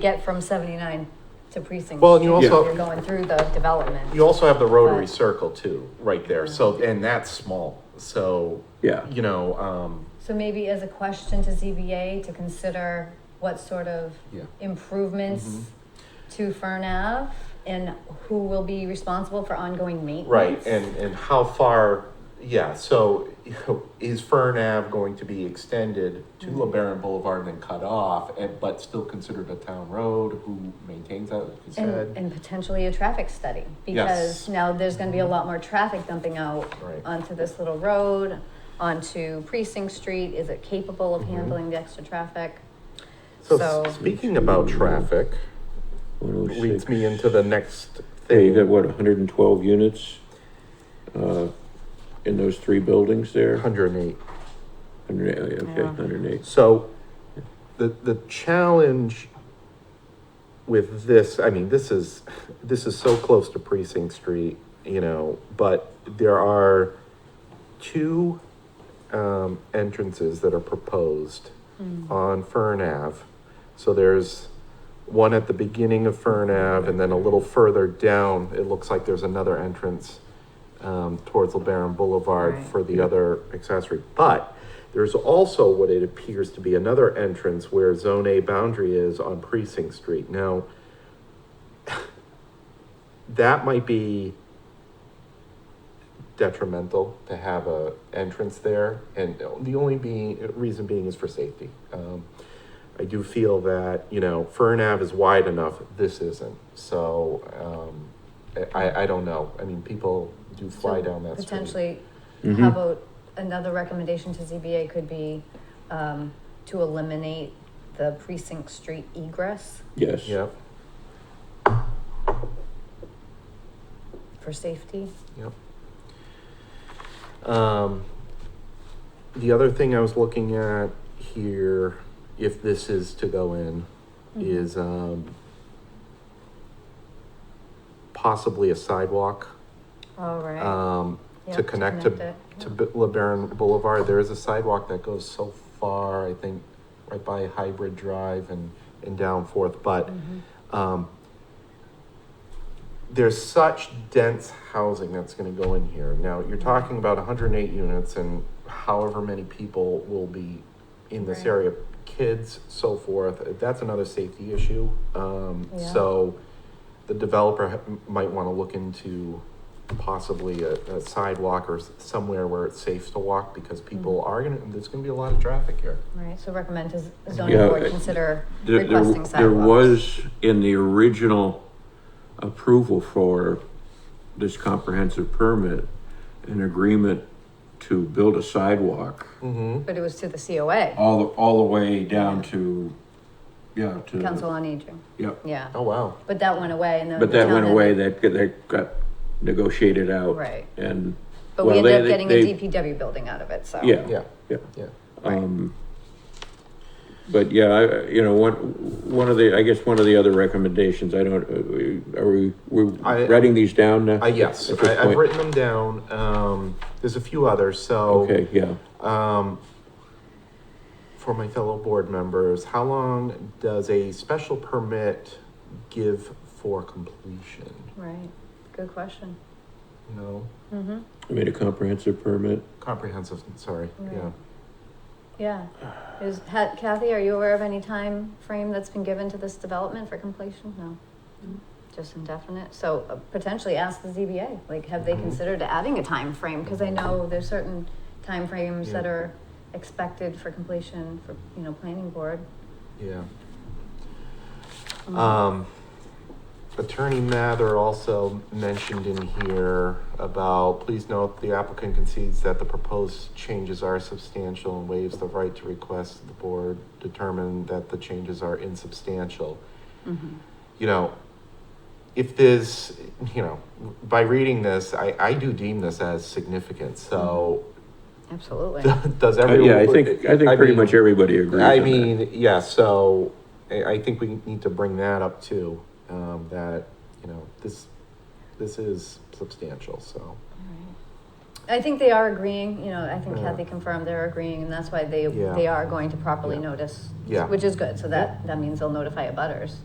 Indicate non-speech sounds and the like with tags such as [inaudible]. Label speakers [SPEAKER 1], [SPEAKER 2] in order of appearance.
[SPEAKER 1] get from seventy-nine to precinct.
[SPEAKER 2] Well, and you
[SPEAKER 1] two,
[SPEAKER 2] also-
[SPEAKER 1] You're going through the development.
[SPEAKER 2] You also have the rotary
[SPEAKER 1] Right.
[SPEAKER 2] circle too, right there. So, and that's small. So,
[SPEAKER 3] Yeah.
[SPEAKER 2] you know, um,
[SPEAKER 1] So maybe as a question to ZBA to consider what sort of
[SPEAKER 2] Yeah. Mm-hmm.
[SPEAKER 1] improvements to Fern Ave and who will be responsible for ongoing maintenance?
[SPEAKER 2] right. And, and how far, yeah. So [laughs] you know, is Fern Ave going to be extended to
[SPEAKER 1] Mm-hmm.
[SPEAKER 2] LeBaron Boulevard and then cut off, and, but still considered a town road? Who maintains that? Like you
[SPEAKER 1] And,
[SPEAKER 2] said.
[SPEAKER 1] and potentially a traffic study,
[SPEAKER 2] Yes. Mm-hmm.
[SPEAKER 1] because now there's gonna be a lot more traffic dumping out
[SPEAKER 2] Right.
[SPEAKER 1] onto this little road, onto Precinct Street, is it capable
[SPEAKER 2] Mm-hmm.
[SPEAKER 1] of handling the extra traffic?
[SPEAKER 2] so,
[SPEAKER 1] so-
[SPEAKER 2] speaking about traffic,
[SPEAKER 3] 106.
[SPEAKER 2] leads me into the next
[SPEAKER 3] Yeah,
[SPEAKER 2] thing.
[SPEAKER 3] you got what, hundred and twelve units? Uh, in those three buildings there?
[SPEAKER 2] 108.
[SPEAKER 3] 100 okay,
[SPEAKER 1] Yeah.
[SPEAKER 3] hundred and eight.
[SPEAKER 2] So the the challenge with this, I mean, this is this is so close to Precinct Street, you know, but there are two um, entrances that are proposed on Fern Ave. So there's one at the beginning of Fern Ave, and then a little further down, it looks like there's another entrance um, towards LeBaron Boulevard
[SPEAKER 1] Right.
[SPEAKER 2] for the other accessory. But there's also what it appears to be another entrance where Zone A boundary is on Precinct Street. Now, [laughs] that might be detrimental to have a entrance there, and the only being reason being is for safety. Um, I do feel that you know Fern Ave is wide enough. This isn't, so um, I I don't know. I mean, people do fly
[SPEAKER 1] So
[SPEAKER 2] down that street.
[SPEAKER 1] Potentially, how
[SPEAKER 3] Mhm.
[SPEAKER 1] about, another recommendation to ZBA could be, um, to eliminate the Precinct Street egress
[SPEAKER 3] Yes.
[SPEAKER 2] Yep,
[SPEAKER 1] for safety.
[SPEAKER 2] yep. Um, the other thing I was looking at here, if this is to go in,
[SPEAKER 1] Mm-hmm.
[SPEAKER 3] Mm-hmm.
[SPEAKER 2] is um, possibly a sidewalk
[SPEAKER 1] All right.
[SPEAKER 3] Uh,
[SPEAKER 2] um,
[SPEAKER 1] Yeah,
[SPEAKER 2] to connect to
[SPEAKER 1] it,
[SPEAKER 2] to
[SPEAKER 1] yeah.
[SPEAKER 2] B- LeBaron Boulevard. There is a sidewalk that goes so far, I think, right by Hybrid Drive and, and down forth. But
[SPEAKER 1] Mhm.
[SPEAKER 2] um, there's such dense housing that's going to go in here. Now, you're talking about 108 units and however many people will be in this
[SPEAKER 1] Right.
[SPEAKER 2] area, kids, so forth. That's another safety issue. Um,
[SPEAKER 1] Yeah.
[SPEAKER 2] So the developer ha- might want to look into possibly a, a sidewalk or s- somewhere where it's safe to walk because people
[SPEAKER 1] Mm-hmm.
[SPEAKER 2] are going to, there's going to be a lot of traffic here.
[SPEAKER 1] Right, so recommend to z- zoning
[SPEAKER 3] Yeah,
[SPEAKER 1] board
[SPEAKER 3] I-
[SPEAKER 1] consider
[SPEAKER 3] There, there,
[SPEAKER 1] requesting sidewalks.
[SPEAKER 3] there was in the original approval for this comprehensive permit, an agreement to build a sidewalk
[SPEAKER 2] Mm-hmm.
[SPEAKER 1] But it was to the COA,
[SPEAKER 3] all the, all the way down to, yeah, to. the-
[SPEAKER 1] Council on Aging,
[SPEAKER 3] Yep,
[SPEAKER 1] yeah,
[SPEAKER 2] Oh, wow.
[SPEAKER 1] but that went away and then.
[SPEAKER 3] but
[SPEAKER 1] the
[SPEAKER 3] that
[SPEAKER 1] town
[SPEAKER 3] went
[SPEAKER 1] had-
[SPEAKER 3] away, that, that got negotiated out.
[SPEAKER 1] Right.
[SPEAKER 3] And.
[SPEAKER 1] But we
[SPEAKER 3] well,
[SPEAKER 1] ended up
[SPEAKER 3] they-
[SPEAKER 1] getting
[SPEAKER 3] they-
[SPEAKER 1] a DPW building out of it, so.
[SPEAKER 3] Yeah.
[SPEAKER 2] Yeah.
[SPEAKER 3] Yeah.
[SPEAKER 2] Yeah.
[SPEAKER 3] Um, but yeah, I, you know, one, one of the, I guess one of the other recommendations, I don't, uh, are we,
[SPEAKER 2] I-
[SPEAKER 3] we're writing these down now?
[SPEAKER 2] Uh, yes,
[SPEAKER 3] At this
[SPEAKER 2] I, I've
[SPEAKER 3] point?
[SPEAKER 2] written them down. Um, there's a few others. So,
[SPEAKER 3] Okay, yeah,
[SPEAKER 2] um, for my fellow board members, how long does a special permit give for completion?
[SPEAKER 1] Right, good question.
[SPEAKER 2] You know,
[SPEAKER 1] Mm-hmm,
[SPEAKER 3] I made a comprehensive permit.
[SPEAKER 2] comprehensive. Sorry.
[SPEAKER 1] Right.
[SPEAKER 2] Yeah.
[SPEAKER 1] yeah. Is, ha- Kathy, are you aware of any time frame that's been given to this development for completion? No?
[SPEAKER 2] Mm-hmm.
[SPEAKER 1] Just indefinite, so uh, potentially ask the ZBA, like, have they
[SPEAKER 2] Mhm.
[SPEAKER 1] considered adding a time frame? Cause I know there's certain time frames that
[SPEAKER 2] Yeah.
[SPEAKER 1] are expected for completion for, you know, planning board.
[SPEAKER 2] Yeah.
[SPEAKER 1] Mm-hmm.
[SPEAKER 2] Um, Attorney Mather also mentioned in here about, please note, the applicant concedes that the proposed changes are substantial and waives the right to request the board determine that the changes are insubstantial.
[SPEAKER 1] Mm-hmm.
[SPEAKER 2] You know, if there's, you know, by reading this, I, I do deem this as significant, so [laughs]
[SPEAKER 1] Absolutely.
[SPEAKER 2] does
[SPEAKER 3] Uh,
[SPEAKER 2] everyone?
[SPEAKER 3] Yeah, I think, I think pretty
[SPEAKER 2] mean-
[SPEAKER 3] much everybody agrees
[SPEAKER 2] I
[SPEAKER 3] on that.
[SPEAKER 2] mean, yeah, so I, I think we need to bring that up too, um, that, you know, this, this is substantial, so.
[SPEAKER 1] I think they are agreeing, you know, I think
[SPEAKER 2] Yeah.
[SPEAKER 1] Kathy confirmed they're agreeing, and that's why they,
[SPEAKER 2] Yeah.
[SPEAKER 1] they are going to properly
[SPEAKER 2] Yeah.
[SPEAKER 1] notice.
[SPEAKER 2] Yeah.
[SPEAKER 1] Which is good, so that, that means they'll notify abutters.